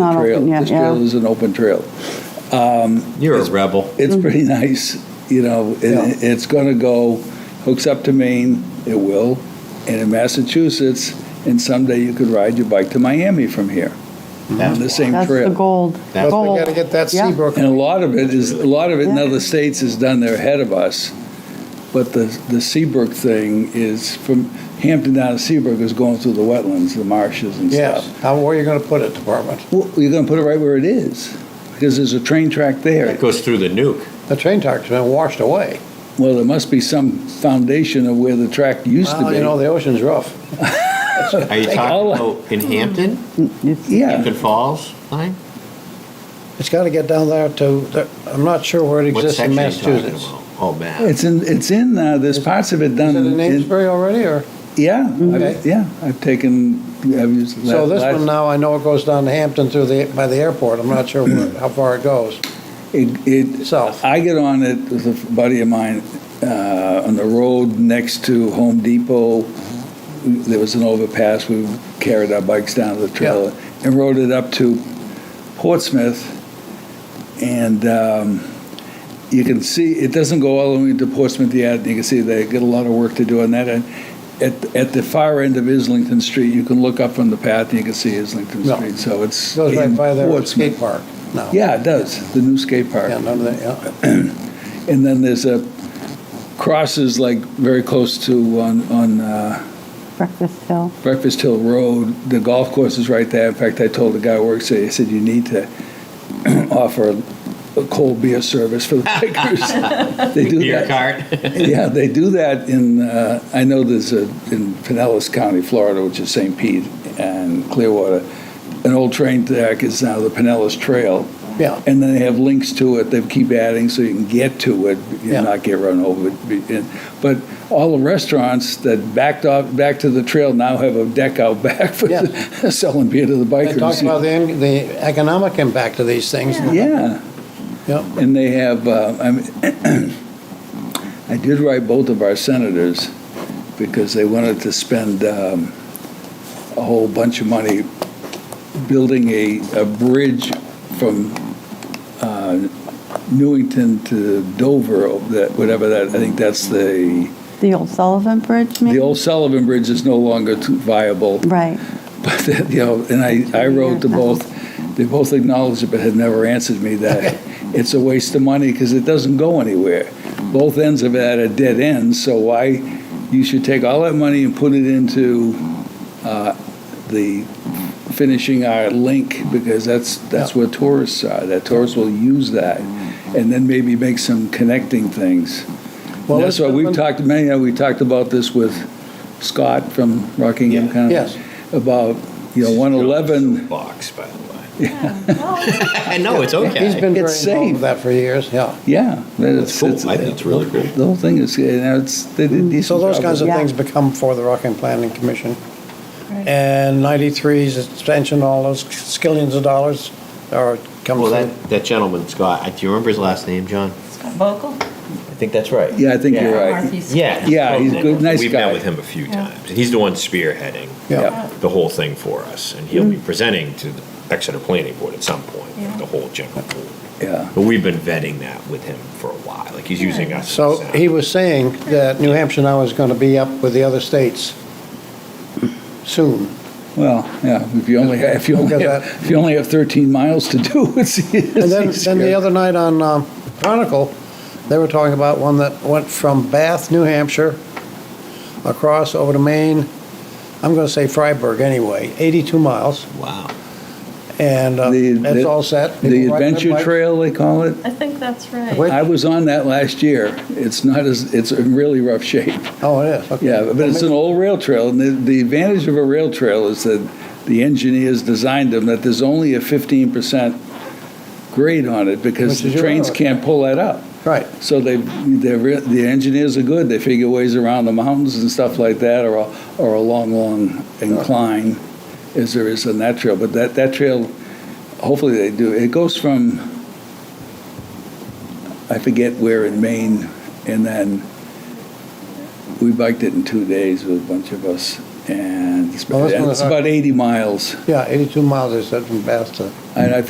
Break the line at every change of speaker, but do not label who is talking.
Not
trail.
open yet,
This
yeah.
trail is an open trail.
You're a rebel.
It's pretty nice, you know,
Mm. Yeah.
it, it's gonna go, hooks up to Maine, it will, and in Massachusetts, and someday you could ride your bike to Miami from here, on the same
That's the
trail.
gold.
That's-
But we
Gold.
gotta get that
Oh, Yeah.
Seabrook.
And a lot of it is, a lot of it in
Yeah.
other states is done there ahead of us, but the, the Seabrook thing is, from Hampton down to Seabrook is going through the wetlands, the marshes and
Yes,
stuff.
how, where are you gonna put it, Department?
Well, you're gonna put it right where it is, because there's a train track there.
It goes through the nuke.
The train track's been washed away.
Well, there must be some foundation of where the track used to
Well, You know,
be.
the ocean's rough.
Are you talking about in Hampton,
It's-
Yeah,
Hampton Falls line?
It's gotta get down there to, the- I'm not sure where it
What
exists
section
in
are you talking
Massachusetts.
about? Oh, man.
it's in, it's in, uh, there's parts of it
Is
done.
it in
in-
Amesbury already, or?
Yeah,
Okay.
I've- yeah, I've taken, I've used.
So this
last-
one now, I know it goes down to Hampton through the, by the airport, I'm not sure where- how far it goes.
It, it-
South.
I get on it with a buddy of mine, uh, on the road next to Home Depot. There was an overpass, we carried our bikes down to the trailer and rode it up to Portsmouth. And, um, you can see, it doesn't go all the way to Portsmouth yet, you can see they get a lot of work to do on that end. At, at the far end of Islington Street, you can look up from the path and you can see Islington
Yeah.
Street, so it's.
It Goes right
in
by their
Portsmouth.
skate park now.
Yeah, it does, the new skate park.
Yeah, none of that, yeah.
And then there's a crosses like very close to on on uh,
Breakfast Hill.
Breakfast Hill Road. The golf course is right there. In fact, I told the guy who works there. He said you need to offer a cold beer service for the bikers. they do
Beer
that.
cart.
Yeah, they do that in. Uh, I know there's a in Pinellas County, Florida, which is St. Pete and Clearwater. An old train track is now the Pinellas Trail,
Yeah,
and then they have links to it, they keep adding so you can get to it
Yeah.
and not get run over. But all the restaurants that backed off, back to the trail now have a deck out back for
Yeah.
selling beer to the
they talked
bikers.
about the, en- the economic impact of these things.
Yeah,
Yep.
and they have, uh, I mean, I did write both of our senators because they wanted to spend um, a whole bunch of money building a, a bridge from uh, Newington to Dover, that, whatever that, I think that's the,
The old Sullivan Bridge,
the
maybe?
old Sullivan Bridge is no longer too viable.
Right.
But, uh, you know, and I, I wrote to both, they both acknowledged it, but had never answered me that it's a waste of money because it doesn't go anywhere. Both ends of it are dead ends, so why, you should take all that money and put it into uh, the finishing our link because that's, that's where tourists are, that tourists will use that. And then maybe make some connecting things.
Well,
And that's why
let's-
we've talked, many, we talked about this with Scott from Rockingham
Yeah.
County
Yes.
about, you know, 111,
Box, by the way. I know, it's okay.
He's been very
It's
involved
safe.
with that for years, yeah.
yeah. that it's-
It's cool.
it's-
I think it's really cool.
The whole thing is, you know, it's, they did a decent
Hmm. So those
job
kinds
with
of
Yeah.
things become for the Rockham Planning Commission.
Right.
And 93's extension, all those skillions of dollars, or comes
Well,
to,
that, that gentleman, Scott, I- do you remember his last name, John?
Vocal?
I think that's right.
it. Yeah, I think you're right.
Northeast.
Yeah.
Yeah, he's a good- nice
We've
guy.
met with him a few times. and He's the one spearheading
yeah.
the whole thing for us, and he'll be
Mm.
presenting to the Exeter Planning Board at some point,
Yeah.
the whole general board.
Yeah,
But we've been vetting that with him for a while, like he's using us. as
So
a-
he was saying that New Hampshire now is going to be up with the other states soon.
well, yeah, if you only, if you
Look
only,
at
have-
that.
if you only have 13 miles to do, it's
And then, then the
easier.
other night on um, Chronicle, they were talking about one that went from Bath, New Hampshire, across over to Maine, I'm going to say Freiburg anyway, 82 miles,
Wow.
and uh,
The-
that's
the-
all set.
The
People riding their
adventure
bikes.
trail, they call it.
I think that's right.
Wait.
I was on that last year. It's not as, it's in really rough shape.
Oh, it is, okay.
Yeah, but it's an old rail trail, and the, the advantage of a rail trail is that the engineers designed them, that there's only a fifteen percent grade on it, because
Which
the
is your
trains
road.
can't pull that up.
Right.
So they, they're, re- the engineers are good, they figure ways around the mountains and stuff like that, or, a- or a long, long incline, as there is on that trail, but that, that trail, hopefully they do, it goes from, I forget where in Maine, and then we biked it in two days with a bunch of us, and it's
Well, that's one of
it's
the-
about 80 miles.
Yeah, 82 miles, I said, from Bath to
And I think